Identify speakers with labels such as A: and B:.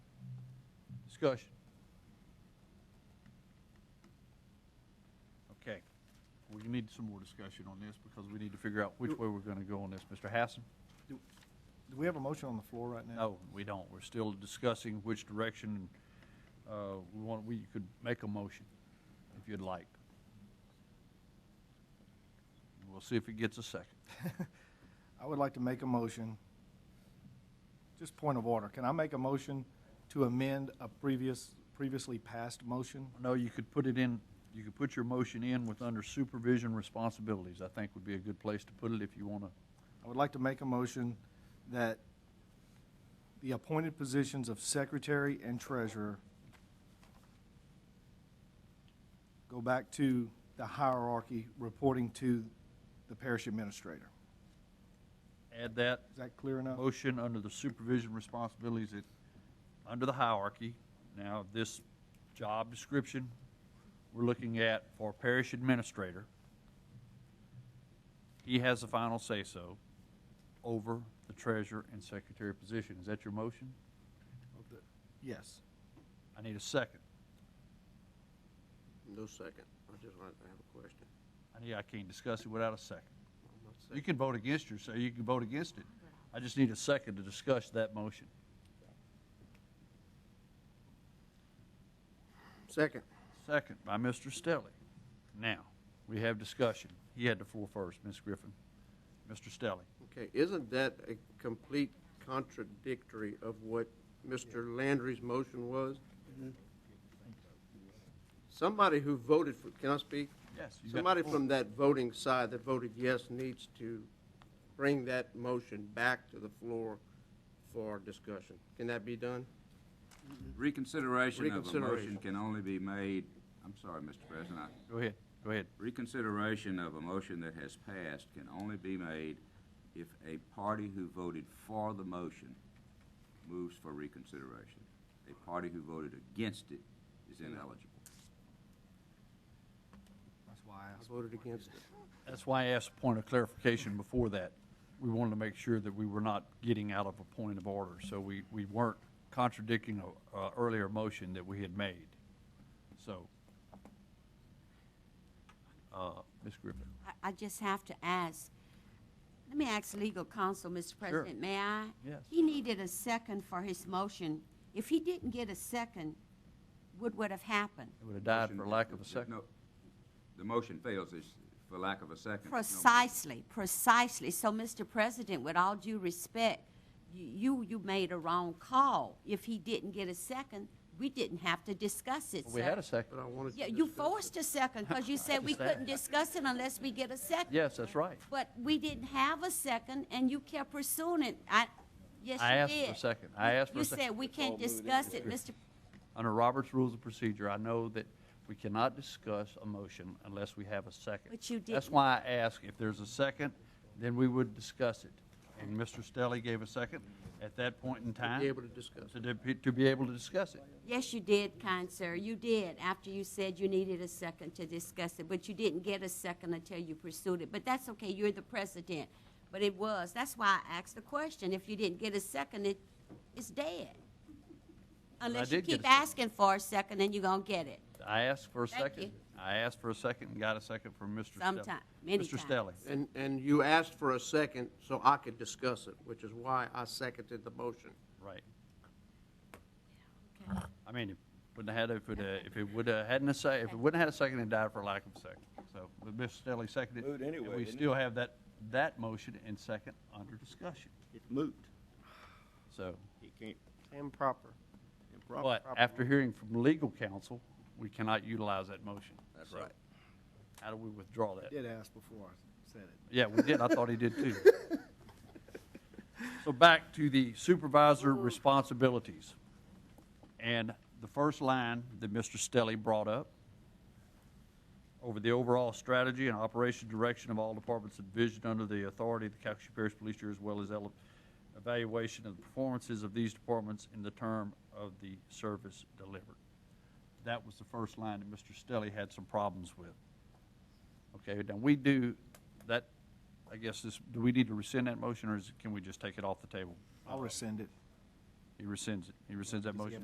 A: Discussion. Okay. We need some more discussion on this because we need to figure out which way we're going to go on this. Mr. Hassan?
B: Do we have a motion on the floor right now?
A: No, we don't. We're still discussing which direction, uh, we want, we could make a motion if you'd like. We'll see if it gets a second.
B: I would like to make a motion, just point of order. Can I make a motion to amend a previous, previously passed motion?
A: No, you could put it in, you could put your motion in with under supervision responsibilities, I think would be a good place to put it if you want to.
B: I would like to make a motion that the appointed positions of secretary and treasurer go back to the hierarchy reporting to the parish administrator.
A: Add that
B: Is that clear enough?
A: motion under the supervision responsibilities that, under the hierarchy. Now, this job description, we're looking at for parish administrator. He has the final say-so over the treasurer and secretary position. Is that your motion?
B: Yes.
A: I need a second.
C: No second. I just want to have a question.
A: I need, I can't discuss it without a second.
C: I'm not
A: You
C: second.
A: can vote against your, so you can vote against it. I just need a second to discuss that motion.
C: Second.
A: Second by Mr. Stelly. Now, we have discussion. He had the floor first, Ms. Griffin. Mr. Stelly.
C: Okay, isn't that a complete contradictory of what Mr. Landry's motion was? Somebody who voted for, can I speak?
A: Yes.
C: Somebody from that voting side that voted yes needs to bring that motion back to the floor for discussion. Can that be done?
D: Reconsideration of a
C: Reconsideration.
D: motion can only be made, I'm sorry, Mr. President, I-
A: Go ahead, go ahead.
D: reconsideration of a motion that has passed can only be made if a party who voted for the motion moves for reconsideration. A party who voted against it is ineligible.
B: That's why I
C: I
B: asked.
C: voted against it.
A: That's why I asked a point of clarification before that. We wanted to make sure that we were not getting out of a point of order, so we, we weren't contradicting a, a earlier motion that we had made. So, uh, Ms. Griffin.
E: I- I just have to ask, let me ask legal counsel, Mr. President, may I?
A: Yes.
E: He needed a second for his motion. If he didn't get a second, what would have happened?
A: It would have died
D: Motion-
A: for lack of
D: the-
A: a
D: the-
A: second.
D: no, The motion fails is for lack of a second. No motion.
E: Precisely, precisely. So, Mr. President, with all due respect, y- you, you made a wrong call. If he didn't get a second, we didn't have to discuss it,
A: We had a
E: sir.
A: second.
C: But I wanted to
E: Yeah, you
C: discuss it.
E: forced a second because you said we couldn't discuss it unless we get a second.
A: Yes, that's right.
E: But we didn't have a second, and you kept pursuing it. I, yes,
A: I
E: you
A: asked for a
E: did.
A: second. I asked for a second.
E: You said we can't discuss it, Mr.
A: Under Robert's Rules of Procedure, I know that we cannot discuss a motion unless we have a second.
E: But you
A: That's
E: didn't.
A: why I ask if there's a second, then we would discuss it. And Mr. Stelly gave a second at that point in time.
C: able to discuss it.
A: To de- To be able to discuss it.
E: Yes, you did, kind sir. You did, after you said you needed a second to discuss it, but you didn't get a second until you pursued it. But that's okay, you're the president. But it was, that's why I asked the question. If you didn't get a second, it, it's dead. Unless you
A: did get a
E: keep
A: second.
E: asking for a second, and you're gonna get it.
A: I asked for a
E: Thank
A: second.
E: you.
A: I asked for a second and got a second from Mr. Stelly.
E: Sometime- many
A: Mr.
E: times.
A: Stelly.
C: And, and you asked for a second so I could discuss it, which is why I seconded the motion.
A: Right. I mean, it wouldn't have had, if it, uh, if it would have hadn't a sec, if it wouldn't have had a second, it died for lack of a second. So, but Mr. Stelly seconded.
F: Moved anyway,
A: And we
F: didn't it?
A: still have that, that motion and second under discussion.
F: It's moot.
A: So,
F: It can't.
B: Improper.
F: improper.
A: but after hearing from legal counsel, we cannot utilize that motion.
D: That's
A: So,
D: right.
A: How do we withdraw that?
B: Did ask before I said it.
A: Yeah, we did. I thought he did too. So back to the supervisor responsibilities. And the first line that Mr. Stelly brought up, over the overall strategy and operation direction of all departments and vision under the authority of the Calhoun Parish Police Year, as well as ele- evaluation of the performances of these departments in the term of the service delivered. That was the first line that Mr. Stelly had some problems with. Okay, now we do, that, I guess this, do we need to rescind that motion, or is, can we just take it off the table?
B: I'll rescind it.
A: He rescinds it, he rescinds that motion.